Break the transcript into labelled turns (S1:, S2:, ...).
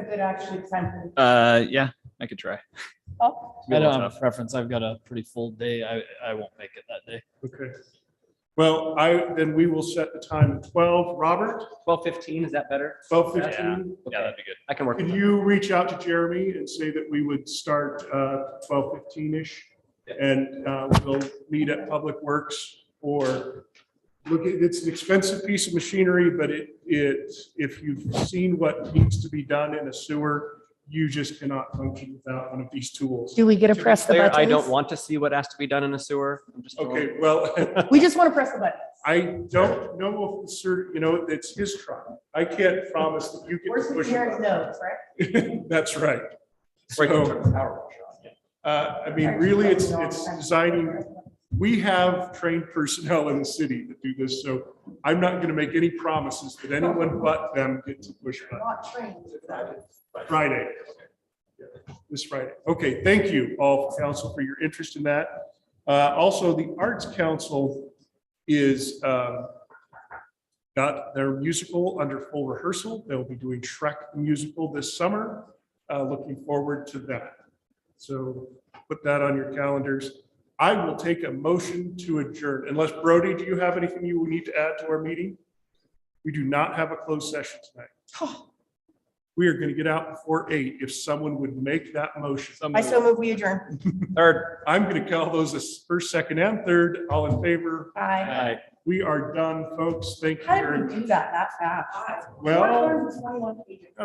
S1: a good actually time for
S2: Uh, yeah, I could try.
S1: Oh,
S2: Be a
S3: I
S2: little
S3: don't have a
S2: tough.
S3: preference. I've got a pretty full day. I, I won't make it that day.
S4: Okay. Well, I, then we will set the time at twelve. Robert,
S5: Twelve fifteen, is that better?
S4: twelve fifteen.
S2: Yeah, that'd be good.
S5: I can work.
S4: Could
S5: with that.
S4: you reach out to Jeremy and say that we would start uh, twelve fifteen-ish? And uh, we'll meet at Public Works or, look, it- it's an expensive piece of machinery, but it, it, if you've seen what needs to be done in a sewer, you just cannot function without one of these tools.
S1: Do we get to press the
S5: Claire,
S1: buttons?
S5: I don't want to see what has to be done in a sewer. I'm just. throwing-
S4: Okay, well,
S1: We just want to press the button.
S4: I don't know if, the cer- you know, it's his trial. I can't promise that you
S1: Where's
S4: can
S1: the
S4: push.
S1: Jared
S4: it.
S1: knows, right?
S4: That's right.
S5: Right, you
S4: So,
S5: turn the power wash on.
S4: uh, I mean, really, it's, it's designing, we have trained personnel in the city that do this, so I'm not going to make any promises that anyone but them get to push buttons.
S1: Not trained, exactly.
S4: Friday. This Friday. Okay, thank you all council for your interest in that. Uh, also, the Arts Council is, um, got their musical under full rehearsal. They'll be doing Shrek musical this summer. Uh, looking forward to that. So put that on your calendars. I will take a motion to adjourn unless Brody, do you have anything you need to add to our meeting? We do not have a closed session tonight. We are going to get out before eight if someone would make that motion.
S1: I so move we adjourn.
S4: Third. I'm going to call those as first, second, and third. All in favor?
S1: Aye.
S4: We are done, folks. Thank you
S1: How did
S4: very
S1: we do
S4: much.
S1: that that fast?
S4: Well-
S1: 421 pages.